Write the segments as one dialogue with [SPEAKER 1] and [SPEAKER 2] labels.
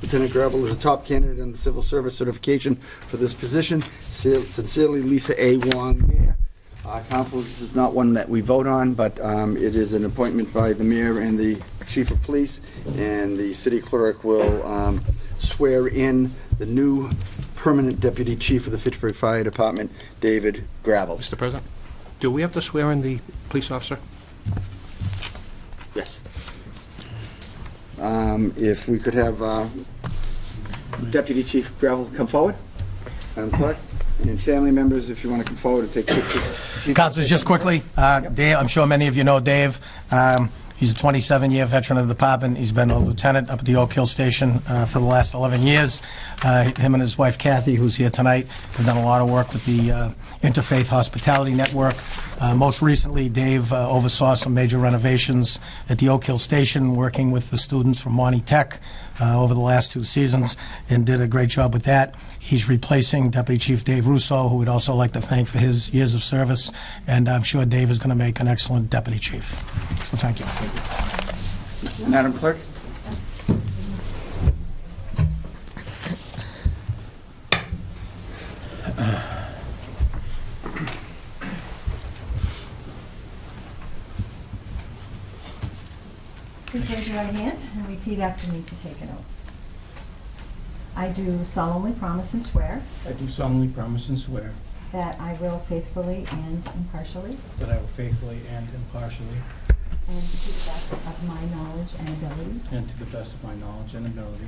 [SPEAKER 1] Lieutenant Gravel is the top candidate in the civil service certification for this position. Sincerely, Lisa A. Wong, Mayor. Uh, Councils, this is not one that we vote on, but um, it is an appointment by the mayor and the chief of police, and the city clerk will um, swear in the new permanent deputy chief of the Fitchburg Fire Department, David Gravel.
[SPEAKER 2] Mr. President, do we have to swear in the police officer?
[SPEAKER 1] Yes. Um, If we could have uh, Deputy Chief Gravel come forward, Madam Clerk, and family members, if you want to come forward and take pictures.
[SPEAKER 3] Counselors, just quickly, uh, Dave, I'm sure many of you know Dave. Um, He's a 27-year veteran of the department. He's been a lieutenant up at the Oak Hill Station uh, for the last 11 years. Uh, Him and his wife Kathy, who's here tonight, have done a lot of work with the uh, Interfaith Hospitality Network. Uh, Most recently, Dave uh, oversaw some major renovations at the Oak Hill Station, working with the students from Monty Tech uh, over the last two seasons, and did a great job with that. He's replacing Deputy Chief Dave Russo, who we'd also like to thank for his years of service, and I'm sure Dave is going to make an excellent deputy chief. So thank you.
[SPEAKER 1] Madam Clerk?
[SPEAKER 4] Please raise your right hand and repeat after me to take an oath. I do solemnly promise and swear
[SPEAKER 5] I do solemnly promise and swear
[SPEAKER 4] that I will faithfully and impartially,
[SPEAKER 5] that I will faithfully and impartially,
[SPEAKER 4] and to the best of my knowledge and ability,
[SPEAKER 5] and to the best of my knowledge and ability,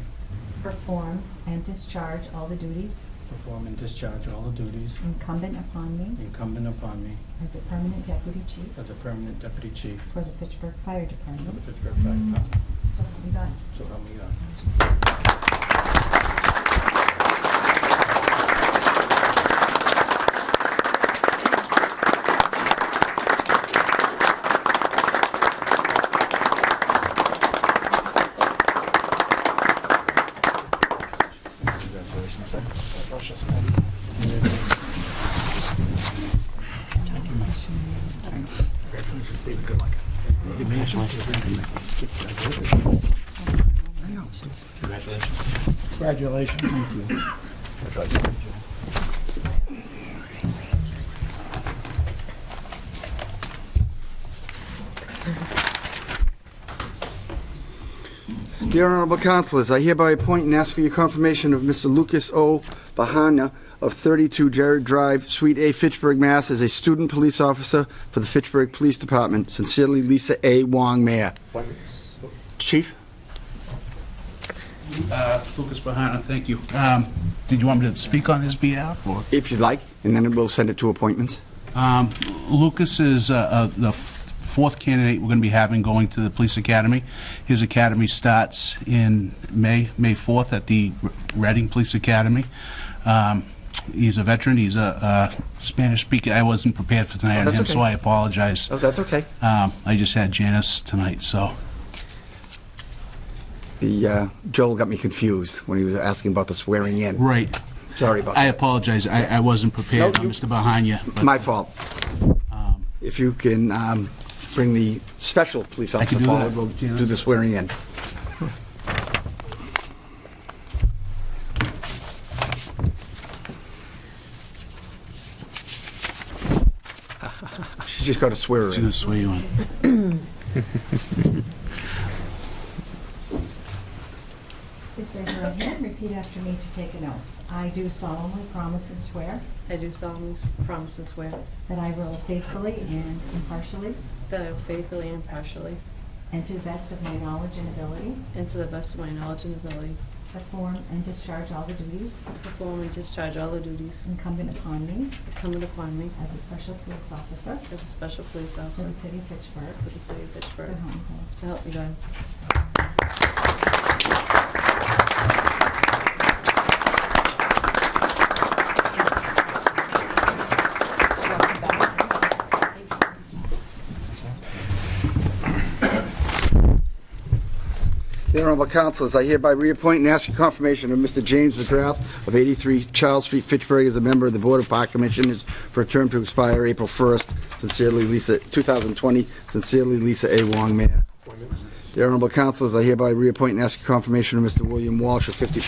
[SPEAKER 4] perform and discharge all the duties
[SPEAKER 5] perform and discharge all the duties
[SPEAKER 4] incumbent upon me
[SPEAKER 5] incumbent upon me
[SPEAKER 4] as a permanent deputy chief
[SPEAKER 5] as a permanent deputy chief
[SPEAKER 4] for the Fitchburg Fire
[SPEAKER 5] of the
[SPEAKER 4] Department.
[SPEAKER 5] Pittsburgh Fire Department.
[SPEAKER 4] So help me God.
[SPEAKER 5] So help me God.
[SPEAKER 1] Dear Honorable Councilors, I hereby appoint and ask for your confirmation of Mr. Lucas O. Bahana of 32 Jared Drive, Suite A, Fitchburg, Mass. as a student police officer for the Fitchburg Police Department. Sincerely, Lisa A. Wong, Mayor. Chief?
[SPEAKER 6] Uh, Lucas Bahana, thank you. Um, Did you want me to speak on his behalf, or?
[SPEAKER 1] If you'd like, and then we'll send it to appointments.
[SPEAKER 6] Um, Lucas is uh, uh, the f- fourth candidate we're going to be having going to the police academy. His academy starts in May, May 4th at the R- Reading Police Academy. Um, He's a veteran, he's a a Spanish speaker. I wasn't prepared for tonight on
[SPEAKER 1] That's
[SPEAKER 6] him, so
[SPEAKER 1] okay.
[SPEAKER 6] I apologize.
[SPEAKER 1] Oh, that's okay.
[SPEAKER 6] Um, I just had Janice tonight, so.
[SPEAKER 1] The, uh, Joel got me confused when he was asking about the swearing in.
[SPEAKER 6] Right.
[SPEAKER 1] Sorry about
[SPEAKER 6] I
[SPEAKER 1] that.
[SPEAKER 6] apologize, I I wasn't prepared
[SPEAKER 1] No,
[SPEAKER 6] on
[SPEAKER 1] you-
[SPEAKER 6] Mr. Bahana. but-
[SPEAKER 1] My fault. If you can um, bring the special police
[SPEAKER 6] I can
[SPEAKER 1] officer
[SPEAKER 6] do that.
[SPEAKER 1] forward, we'll do the swearing in. She's just got to swear her
[SPEAKER 6] She's gonna
[SPEAKER 1] in.
[SPEAKER 6] swear you in.
[SPEAKER 4] Please raise your right hand and repeat after me to take an oath. I do solemnly promise and swear
[SPEAKER 7] I do solemnly promise and swear
[SPEAKER 4] that I will faithfully and impartially,
[SPEAKER 7] that I will faithfully and impartially,
[SPEAKER 4] and to the best of my knowledge and ability,
[SPEAKER 7] and to the best of my knowledge and ability,
[SPEAKER 4] Perform and discharge all the duties
[SPEAKER 7] perform and discharge all the duties
[SPEAKER 4] incumbent upon me
[SPEAKER 7] incumbent upon me
[SPEAKER 4] as a special police officer
[SPEAKER 7] as a special police
[SPEAKER 4] for
[SPEAKER 7] officer
[SPEAKER 4] the city of Fitchburg.
[SPEAKER 7] for the city of
[SPEAKER 4] So
[SPEAKER 7] Pittsburgh.
[SPEAKER 4] help me God.
[SPEAKER 7] So help me God.
[SPEAKER 1] The Honorable Councilors, I hereby reappoint and ask your confirmation of Mr. James McGrath of 83 Charles Street, Fitchburg, as a member of the Board of Park Commissioners for a term to expire April 1st. Sincerely, Lisa, 2020. Sincerely, Lisa A. Wong, Mayor. Dear honorable councilors, I hereby reappoint and ask your confirmation of Mr. William Walsh of 50